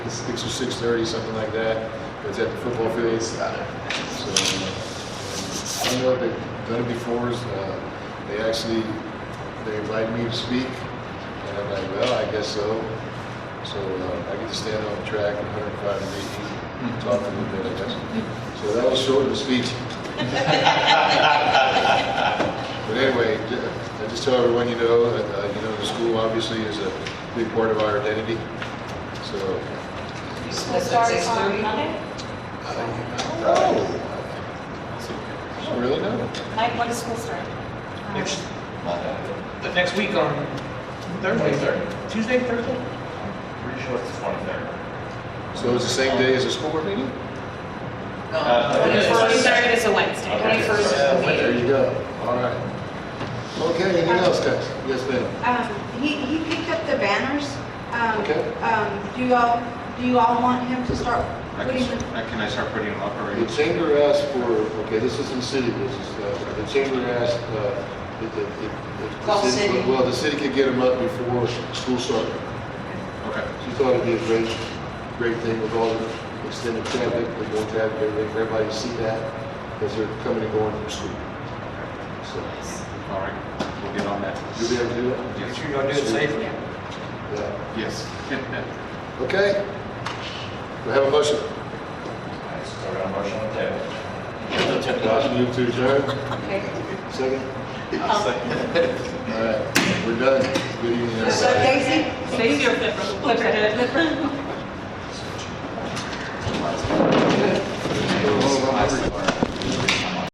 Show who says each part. Speaker 1: six or six thirty, something like that. It's at the football field. So, I don't know if they've done it before, uh, they actually, they invited me to speak, and I'm like, well, I guess so. So, uh, I get to stand on track at hundred and five and eighty, talk a little bit, I guess. So that was short of a speech. But anyway, ju- I just tell everyone, you know, that, uh, you know, the school obviously is a big part of our identity. So,
Speaker 2: You
Speaker 3: We'll
Speaker 2: supposed to
Speaker 3: start
Speaker 2: six
Speaker 3: on
Speaker 2: thirty?
Speaker 3: Monday.
Speaker 1: I don't know. I don't really know.
Speaker 3: Mike, when does school start?
Speaker 4: Next
Speaker 5: The next week on Thursday,
Speaker 4: Twenty-third.
Speaker 5: Tuesday, Thursday?
Speaker 4: Pretty sure it's the twenty-third.
Speaker 1: So it's the same day as the school board meeting?
Speaker 4: Uh,
Speaker 2: No,
Speaker 4: it is.
Speaker 2: twenty-first.
Speaker 3: Twenty-third is a Wednesday.
Speaker 2: Twenty-first is the
Speaker 1: There
Speaker 2: meeting.
Speaker 1: you go. All right. Okay, anything else, guys? Yes, ma'am.
Speaker 6: Um, he, he picked up the banners. Um,
Speaker 1: Okay.
Speaker 6: um, do y'all, do you all want him to start
Speaker 4: I
Speaker 6: putting
Speaker 4: Can
Speaker 6: them?
Speaker 4: I can I start putting them up already?
Speaker 1: The chamber asked for, okay, this is in city business, uh, the chamber asked, uh, that the, if- if the
Speaker 2: Call city.
Speaker 1: Well, the city could get them up before school started.
Speaker 4: Okay.
Speaker 1: She thought it'd be a great, great thing with all the extended traffic, the more traffic, everything, for everybody to see that as they're coming and going from school. So,
Speaker 4: All right, we'll get on that.
Speaker 1: you'll be able to do that?
Speaker 4: Yes.
Speaker 5: Sure y'all do it safely.
Speaker 1: Yeah.
Speaker 4: Yes.
Speaker 1: Okay. We have a motion.
Speaker 4: Start our motion on that.
Speaker 1: Josh, move to adjourn.
Speaker 2: Okay.
Speaker 1: Second? All right, we're done. Good evening,
Speaker 2: So
Speaker 1: everybody.
Speaker 2: Daisy,
Speaker 3: Stacy or Flipper? Flipper.
Speaker 1: Go home, I'm hungry.